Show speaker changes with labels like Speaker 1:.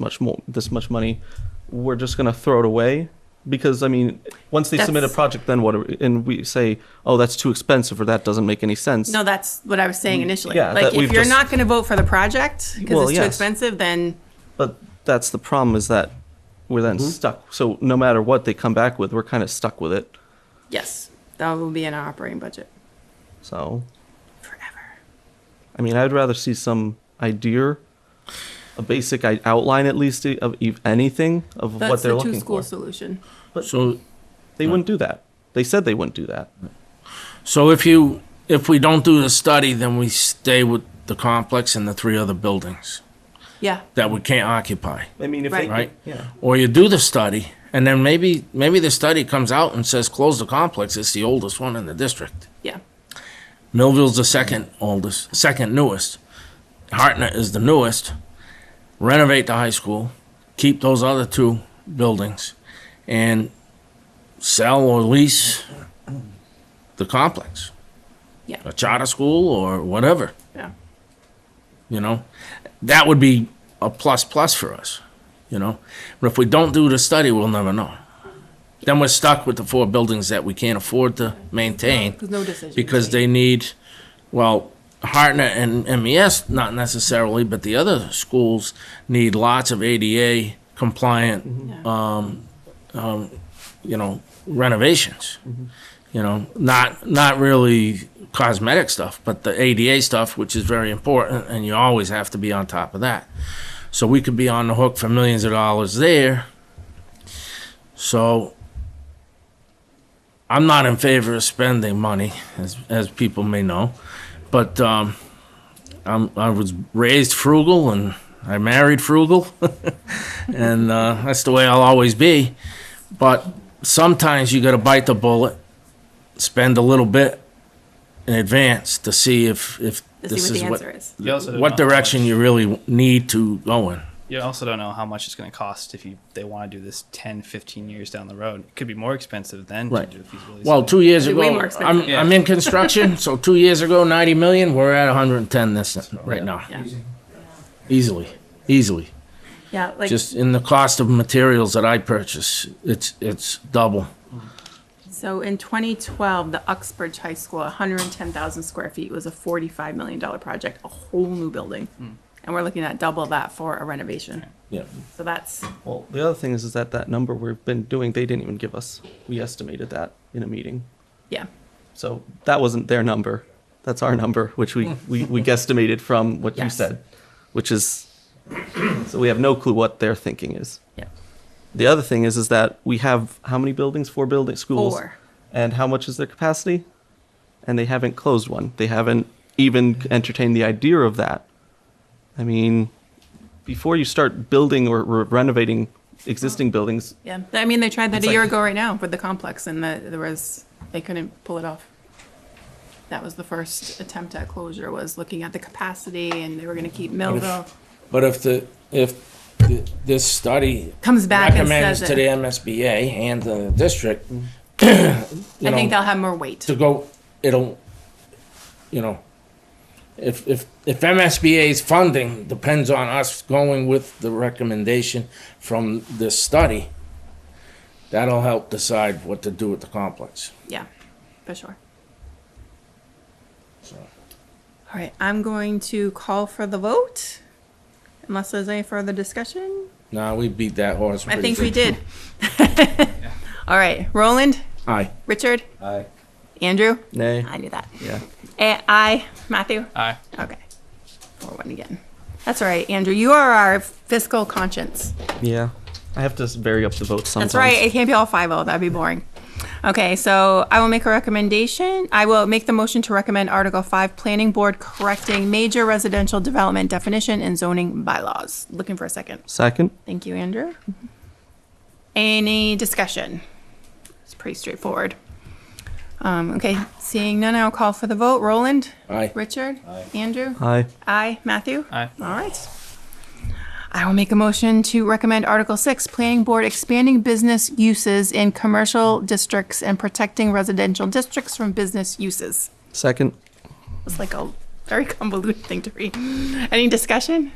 Speaker 1: much more this much money we're just going to throw it away because i mean once they submit a
Speaker 2: That's-
Speaker 1: project then what are we, and we say oh that's too expensive or that doesn't make any sense
Speaker 2: No, that's what I was saying initially.
Speaker 1: Mm, yeah, that
Speaker 2: Like,
Speaker 1: we've
Speaker 2: if you're
Speaker 1: just-
Speaker 2: not going to vote for the project
Speaker 1: Well,
Speaker 2: because it's too
Speaker 1: yes.
Speaker 2: expensive, then
Speaker 1: but that's the problem is that we're then stuck so no matter what they come back with we're kind of stuck with it
Speaker 2: yes, that will be in our operating budget
Speaker 1: so
Speaker 2: forever.
Speaker 1: i mean i'd rather see some idea a basic i- outline at least e, of ev- anything of what
Speaker 2: That's
Speaker 1: they're
Speaker 2: the
Speaker 1: looking
Speaker 2: two-school
Speaker 1: for
Speaker 2: solution.
Speaker 3: So,
Speaker 1: they wouldn't do that they said they wouldn't do that
Speaker 3: so if you, if we don't do the study, then we stay with the complex and the three other buildings
Speaker 2: Yeah,
Speaker 3: that we can't occupy,
Speaker 1: i mean if they
Speaker 2: Right.
Speaker 3: right?
Speaker 1: yeah
Speaker 3: Or you do the study, and then maybe, maybe the study comes out and says, close the complex, it's the oldest one in the district.
Speaker 2: yeah.
Speaker 3: Millville's the second oldest, second newest. Hartnett is the newest. Renovate the high school, keep those other two buildings, and sell or lease the complex.
Speaker 2: Yeah.
Speaker 3: A charter school or whatever,
Speaker 2: Yeah.
Speaker 3: you know? That would be a plus plus for us, you know? But if we don't do the study, we'll never know. Then we're stuck with the four buildings that we can't afford to maintain
Speaker 2: There's no decision.
Speaker 3: because they need, well, Hartnett and MES, not necessarily, but the other schools need lots of ADA compliant, um,
Speaker 2: Yeah.
Speaker 3: you know, renovations. You know, not, not really cosmetic stuff, but the ADA stuff, which is very important, and you always have to be on top of that. So we could be on the hook for millions of dollars there. So I'm not in favor of spending money, as as people may know, but um, I'm I was raised frugal and I married frugal, and uh, that's the way I'll always be. But sometimes you got to bite the bullet, spend a little bit in advance to see if if
Speaker 2: To
Speaker 3: this
Speaker 2: see what
Speaker 3: is
Speaker 2: the
Speaker 3: what
Speaker 2: answer is.
Speaker 4: You also don't
Speaker 3: what
Speaker 4: know how
Speaker 3: direction
Speaker 4: much-
Speaker 3: you really need to go in.
Speaker 4: You also don't know how much it's going to cost if you they want to do this 10, 15 years down the road. It could be more expensive than
Speaker 3: Right.
Speaker 4: to do a feasibility.
Speaker 3: Well,
Speaker 4: study.
Speaker 3: two years
Speaker 2: It'd
Speaker 3: ago,
Speaker 2: be way more
Speaker 3: I'm,
Speaker 2: expensive.
Speaker 3: I'm in construction, so two years ago, 90 million, we're at 110 this, right now.
Speaker 2: Yeah.
Speaker 3: Easily, easily.
Speaker 2: Yeah, like
Speaker 3: Just in the cost of materials that I purchase, it's, it's double.
Speaker 2: so in 2012, the Uxbridge High School, 110,000 square feet, was a 45 million dollar project, a whole new building, and we're looking at double that for a renovation.
Speaker 3: Yeah.
Speaker 2: So that's
Speaker 1: Well, the other thing is, is that that number we've been doing, they didn't even give us. We estimated that in a meeting.
Speaker 2: yeah,
Speaker 1: So that wasn't their number. That's our number, which we, we, we guesstimated from what you
Speaker 2: Yes.
Speaker 1: said, which is, so we have no clue what their thinking is.
Speaker 2: yeah,
Speaker 1: The other thing is, is that we have how many buildings? Four building schools.
Speaker 2: Four.
Speaker 1: And how much is their capacity? And they haven't closed one. They haven't even entertained the idea of that. I mean, before you start building or re- renovating existing buildings,
Speaker 2: yeah. I mean, they tried that
Speaker 1: It's
Speaker 2: a year
Speaker 1: like-
Speaker 2: ago right now with the complex, and the, there was they couldn't pull it off. That was the first attempt at closure. Was looking at the capacity, and they were going to keep Millville.
Speaker 3: But if the, if th- this study
Speaker 2: Comes back and
Speaker 3: recommends
Speaker 2: says
Speaker 3: to the
Speaker 2: it. Mm.
Speaker 3: MSBA and the district, you
Speaker 2: I think
Speaker 3: know,
Speaker 2: they'll have more weight.
Speaker 3: to go, it'll, you know, if, if, if MSBA's funding depends on us going with the recommendation from this study, that'll help decide what to do with the complex.
Speaker 2: Yeah, for sure.
Speaker 3: So,
Speaker 2: All right, I'm going to call for the vote. Unless there's any further discussion?
Speaker 3: Nah, we beat that horse.
Speaker 2: I
Speaker 3: pretty
Speaker 2: think we
Speaker 3: good.
Speaker 2: did. All right, Roland,
Speaker 3: Aye.
Speaker 2: Richard,
Speaker 5: Aye.
Speaker 2: Andrew?
Speaker 1: nay.
Speaker 2: I knew that.
Speaker 1: Yeah.
Speaker 2: Eh, Aye, Matthew?
Speaker 4: Aye.
Speaker 2: Okay. Four one again. That's all right, Andrew, you are our fiscal conscience.
Speaker 1: Yeah. I have to s- vary up the votes sometimes.
Speaker 2: That's right, it can't be all five oh, that'd be boring. Okay, so I will make a recommendation. I will make the motion to recommend Article Five, Planning Board correcting major residential development definition and zoning bylaws. Looking for a second.
Speaker 1: Second?
Speaker 2: Thank you, Andrew. Any discussion? It's pretty straightforward. Um, okay, seeing none, I'll call for the vote. Roland?
Speaker 3: Aye.
Speaker 2: Richard? Andrew?
Speaker 1: Aye.
Speaker 2: Aye. Matthew?
Speaker 4: Aye.
Speaker 2: All right. I will make a motion to recommend Article Six, Planning Board expanding business uses in commercial districts and protecting residential districts from business uses.
Speaker 1: Second?
Speaker 2: It's like a very convoluted thing to read. Any discussion?